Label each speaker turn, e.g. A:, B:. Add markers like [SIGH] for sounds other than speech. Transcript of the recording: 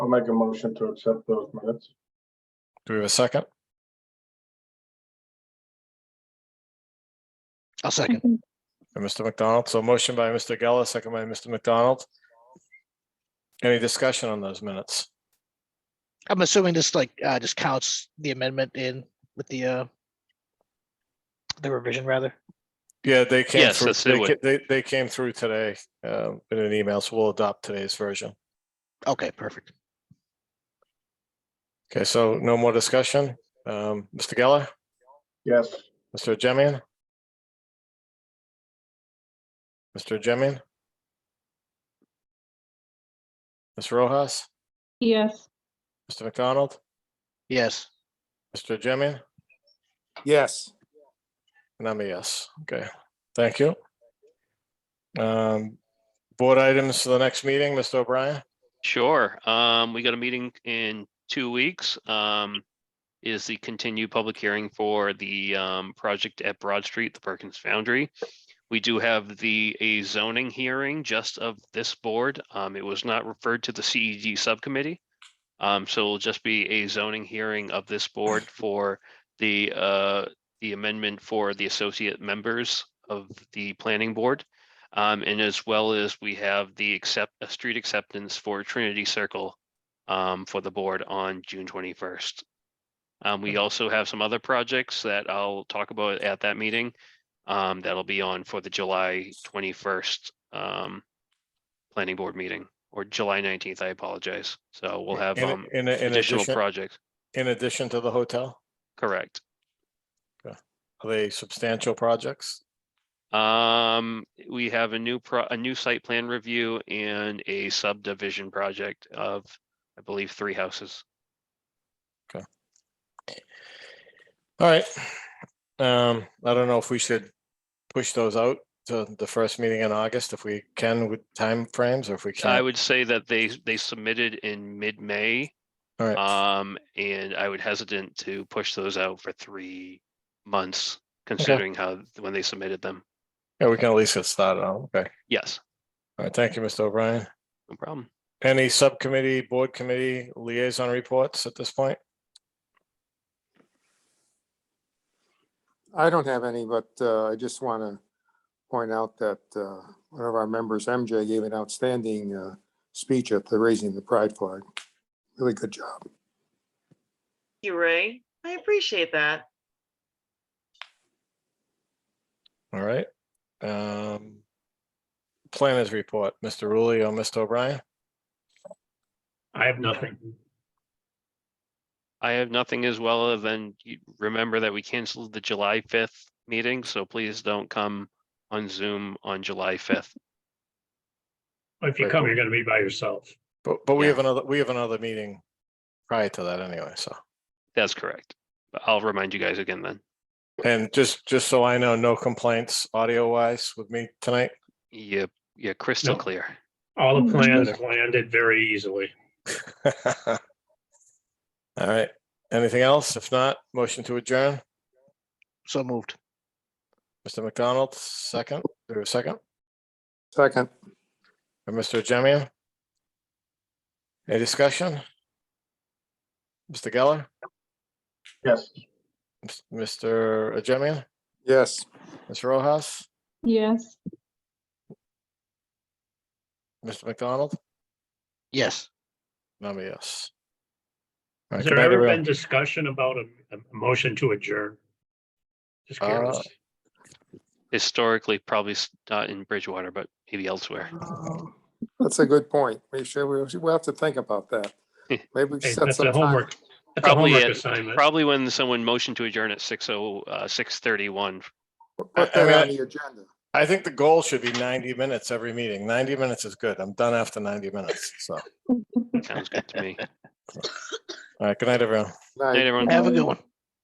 A: I'll make a motion to accept those minutes.
B: Do we have a second?
C: I'll second.
B: by Mr. McDonald. So motion by Mr. Geller, second by Mr. McDonald. Any discussion on those minutes?
C: I'm assuming this like, uh, just counts the amendment in with the, uh, the revision rather.
B: Yeah, they came
D: Yes,
B: through,
D: yes, they
B: they
D: would.
B: ca- they, they came through today um, in an email, so we'll adopt today's version.
C: Okay, perfect.
B: Okay, so no more discussion. Um, Mr. Geller,
A: Yes,
B: Mr. Jemian? Mr. Jemian? Ms. Rojas,
E: yes,
B: Mr. McDonald,
C: Yes.
B: Mr. Jemian?
F: yes,
B: And I'm a yes. Okay, thank you. Um, board items for the next meeting, Mr. O'Brien?
D: Sure. Um, we got a meeting in two weeks. Um, is the continued public hearing for the um project at Broad Street, the Perkins Foundry. We do have the a zoning hearing just of this board. Um, it was not referred to the CEG subcommittee. Um, so it'll just be a zoning hearing of this board for the uh the amendment for the associate members of the planning board. Um, and as well as we have the accept, a street acceptance for Trinity Circle um, for the board on June twenty-first. Um, we also have some other projects that I'll talk about at that meeting. Um, that'll be on for the July twenty-first um, planning board meeting or July nineteenth, I apologize. So we'll have
B: In-
D: um,
B: In, a- in
D: additional
B: addition,
D: projects,
B: in addition to the hotel,
D: correct.
B: are they substantial projects?
D: Um, we have a new pro, a new site plan review and a subdivision project of, I believe, three houses.
B: All right. Um, I don't know if we should push those out to the first meeting in August, if we can with timeframes, or if we
D: I
B: can't.
D: would say that they, they submitted in mid-May,
B: All right,
D: um, and I would hesitant to push those out for three months, considering how, when they submitted them.
B: yeah, we can at least get started on, okay.
D: Yes,
B: All right, thank you, Mr. O'Brien.
D: no problem.
B: Any subcommittee, board committee liaison reports at this point?
F: I don't have any, but uh, I just want to point out that uh, one of our members, MJ, gave an outstanding uh, speech at the Raising the Pride Flag. Really good job.
G: you, Ray. I appreciate that.
B: All right. Um, planners report, Mr. Rulli or Mr. O'Brien?
H: I have nothing.
D: I have nothing as well other than you- remember that we canceled the July fifth meeting, so please don't come on Zoom on July fifth.
H: If you come, you're gonna be by yourself.
B: But, but we
D: Yeah.
B: have another, we have another meeting prior to that anyway, so.
D: That's correct. But I'll remind you guys again then.
B: And just, just so I know, no complaints audio wise with me tonight. [LAUGHS]
D: Yeah, yeah, crystal
H: No.
D: clear.
H: All the
E: Mhm.
H: plans landed very easily.
B: All right. Anything else? If not, motion to adjourn.
C: So moved.
B: Mr. McDonald, second, or second,
F: Second,
B: and Mr. Jemian? Any discussion? Mr. Geller,
A: yes.
B: Mr. Jemian,
F: yes.
B: Ms. Rojas?
E: yes.
B: Mr. McDonald?
C: Yes.
B: No, I'm a yes. All right,
H: Has
B: good
H: there
B: night,
H: ever
B: everyone.
H: been discussion about a, a motion to adjourn? Just curious.
B: Uh,
D: Historically, probably s- not in Bridgewater, but maybe elsewhere.
F: Um, That's a good point. We should, we should- we'll have to think about that. Maybe we
H: Hey,
F: set
H: That's
F: some
H: a
F: time-
H: homework, that's a
D: Probably
H: homework
D: it-
H: assignment.
D: Probably when someone motioned to adjourn at six oh, uh, six thirty-one.
F: Put
B: I- I mean,
F: that
B: I-
F: on the agenda.
B: I think the goal should be ninety minutes every meeting. Ninety minutes is good. I'm done after ninety minutes, so.
D: Sounds good to me.
B: All right, good night, everyone.
D: Night,
F: Night.
D: everyone.
C: Have a good one.